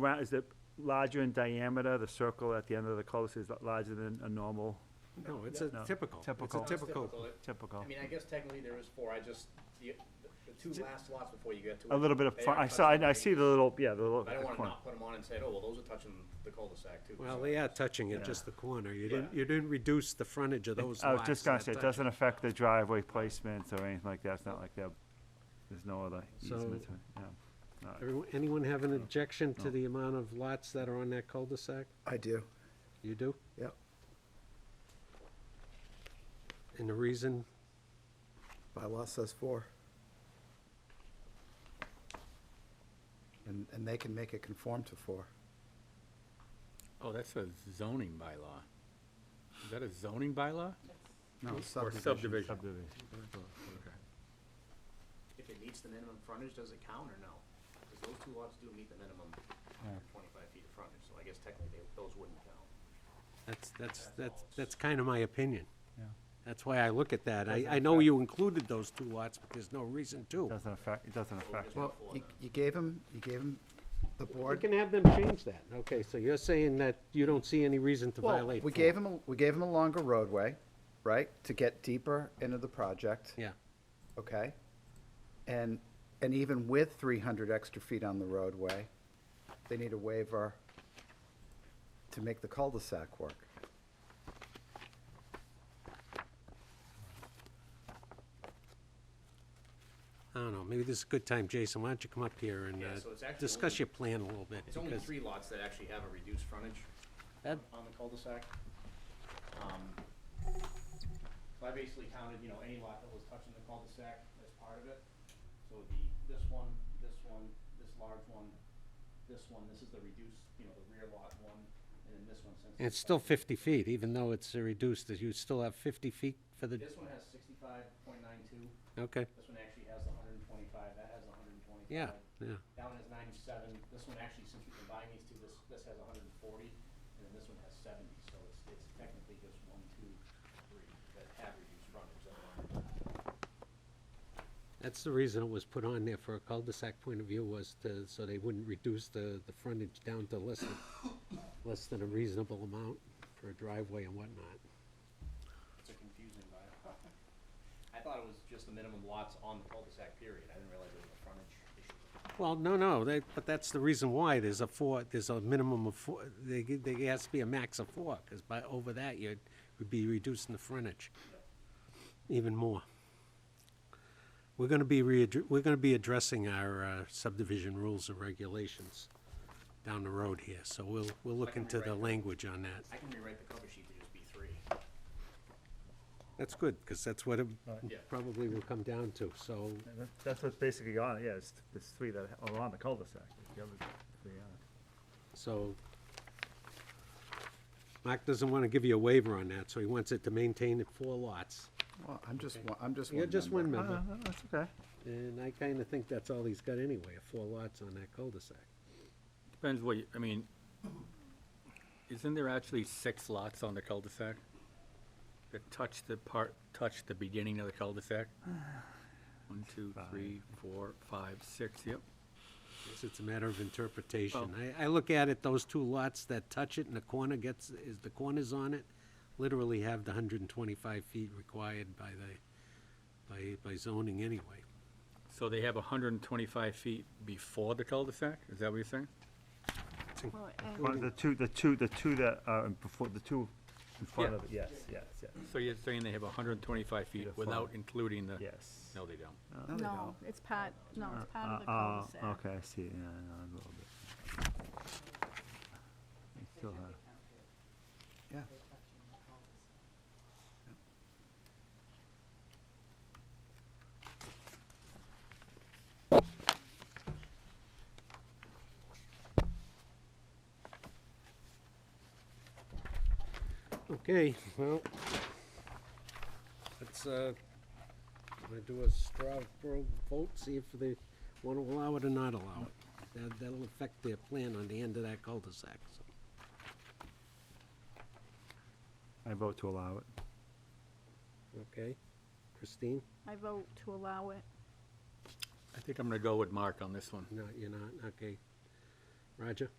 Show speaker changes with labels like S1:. S1: round, is it larger in diameter, the circle at the end of the cul-de-sac is larger than a normal
S2: No, it's
S1: Yeah.
S2: a
S1: No.
S2: typical, it's a
S1: Typical.
S2: typical.
S3: It-
S1: typical?
S3: I mean, I guess technically there is four, I just, the, the two last lots before you get to.
S1: A
S3: it,
S1: little bit of,
S3: they
S1: fr-
S3: are
S1: I saw,
S3: touching
S1: I I see the little, yeah, the little
S3: I don't wanna
S1: corner.
S3: not put them on and say, oh, well, those are touching the cul-de-sac too.
S2: Well,
S3: so-
S2: they are touching it,
S1: Yeah.
S2: just the corner. You didn't,
S3: Yeah.
S2: you didn't reduce the frontage of those lots.
S1: I was just gonna
S2: that
S1: say, it
S2: touch
S1: doesn't affect the driveway placements or anything like that, it's not like that, there's no other
S2: So-
S1: easement, or- yeah.
S2: Everyone- Anyone have an objection to the amount of lots that are on that cul-de-sac?
S4: I do,
S2: You do?
S4: yep.
S2: And the reason?
S4: Bylaw says four. And, and they can make it conform to four.
S5: Oh, that's a zoning bylaw. Is that a zoning bylaw?
S4: No,
S5: Or
S4: subdivision.
S5: subdivision?
S1: Subdivision.
S5: Okay.
S3: If it meets the minimum frontage, does it count or no? Cause those two lots do meet the minimum twenty-five feet of frontage, so I guess technically they, those wouldn't count.
S2: That's, that's, that's, that's kind of my opinion.
S1: Yeah.
S2: That's why I look at that. I, I know you included those two lots, but there's no reason to.
S1: Doesn't affect, it doesn't affect,
S4: Well, you, you gave him, you gave him the
S2: We
S4: board.
S2: can have them change that. Okay, so you're saying that you don't see any reason to
S4: Well,
S2: violate.
S4: we
S2: four.
S4: gave him, a- we gave him a longer roadway, right, to get deeper into the project,
S2: Yeah,
S4: okay? And, and even with three hundred extra feet on the roadway, they need a waiver to make the cul-de-sac work.
S2: I don't know. Maybe this is a good time, Jason. Why don't you come up here and,
S3: Yeah,
S2: uh,
S3: so it's actually
S2: discuss
S3: only-
S2: your plan a little bit?
S3: It's only
S2: because
S3: three lots that actually have a reduced frontage
S2: that-
S3: on the cul-de-sac. Um, So I basically counted, you know, any lot that was touching the cul-de-sac as part of it. So the, this one, this one, this large one, this one, this is the reduced, you know, the rear lot one, and then this one since.
S2: And it's still 50 feet, even though it's reduced, that you still have 50 feet for the,
S3: This one has sixty-five point nine two,
S2: okay,
S3: this one actually has the hundred and twenty-five, that has the hundred and twenty-five.
S2: yeah, yeah.
S3: That one has ninety-seven, this one actually, since we combine these two, this, this has hundred and forty, and then this one has seventy, so it's, it's technically just one, two, three, that have reduced frontage. otherwise-
S2: That's the reason it was put on there for a cul-de-sac point of view was to, so they wouldn't reduce the, the frontage down to less than, less than a reasonable amount for a driveway and whatnot.
S3: It's a confusing bylaw. I thought it was just the minimum lots on the cul-de-sac period, I didn't realize it was a frontage issue.
S2: Well, no, no, they, but that's the reason why there's a four, there's a minimum of four, there, there has to be a max of four, because by, over that, you'd, would be reducing the frontage even more. We're gonna be readdr, we're gonna be addressing our uh, subdivision rules and regulations down the road here, so we'll, we'll look
S3: can we
S2: into the
S3: write that?
S2: language on that.
S3: I can rewrite the cover sheet to just be three.
S2: That's good, because that's what it
S3: Yeah.
S2: probably will come down to, so,
S1: that's what's basically on it, yeah, it's, it's three that are on the cul-de-sac, the other three aren't.
S2: so. Mark doesn't wanna give you a waiver on that, so he wants it to maintain at four lots.
S4: Well, I'm just, one- I'm just one
S2: You're just one
S4: member.
S1: No,
S2: member,
S1: no, no, Oh, that's okay.
S2: and I kinda think that's all he's got anyway, are four lots on that cul-de-sac.
S5: Depends what, you- I mean, isn't there actually six lots on the cul-de-sac? That touch the part, touch the beginning of the cul-de-sac? One, two, three, four, five, six, yep.
S2: Guess It's a matter of interpretation. I, I look at it, those two lots that touch it and the corner gets, is the corners on it, literally have the hundred and twenty-five feet required by the, by, by zoning anyway.
S5: So they have hundred and twenty-five feet before the cul-de-sac? Is that what you're saying?
S6: Well,
S1: One of
S6: and
S1: The two, the two, the two that are in before, the two in front
S5: Yeah.
S1: of it, yes, yes, yes,
S5: So you're saying they have hundred and twenty-five
S1: Feet
S5: feet
S1: of
S5: without including the?
S1: yes.
S5: No, they don't.
S4: No, they
S6: No,
S4: don't.
S6: it's part, no, it's part of the
S1: Uh,
S6: cul-de-sac.
S1: oh, Okay, I see, yeah, I know, a little bit. I still have,
S4: Yeah.
S2: Okay, well, let's, uh, wanna do a straw vote- vote, see if they wanna allow it or not allow it. That, that'll affect their plan on the end of that cul-de-sac, so.
S1: I vote to allow it.
S2: Okay, Christine?
S6: I vote to allow it.
S5: I think I'm gonna go with Mark on this one.
S2: No, you're not, okay. Roger?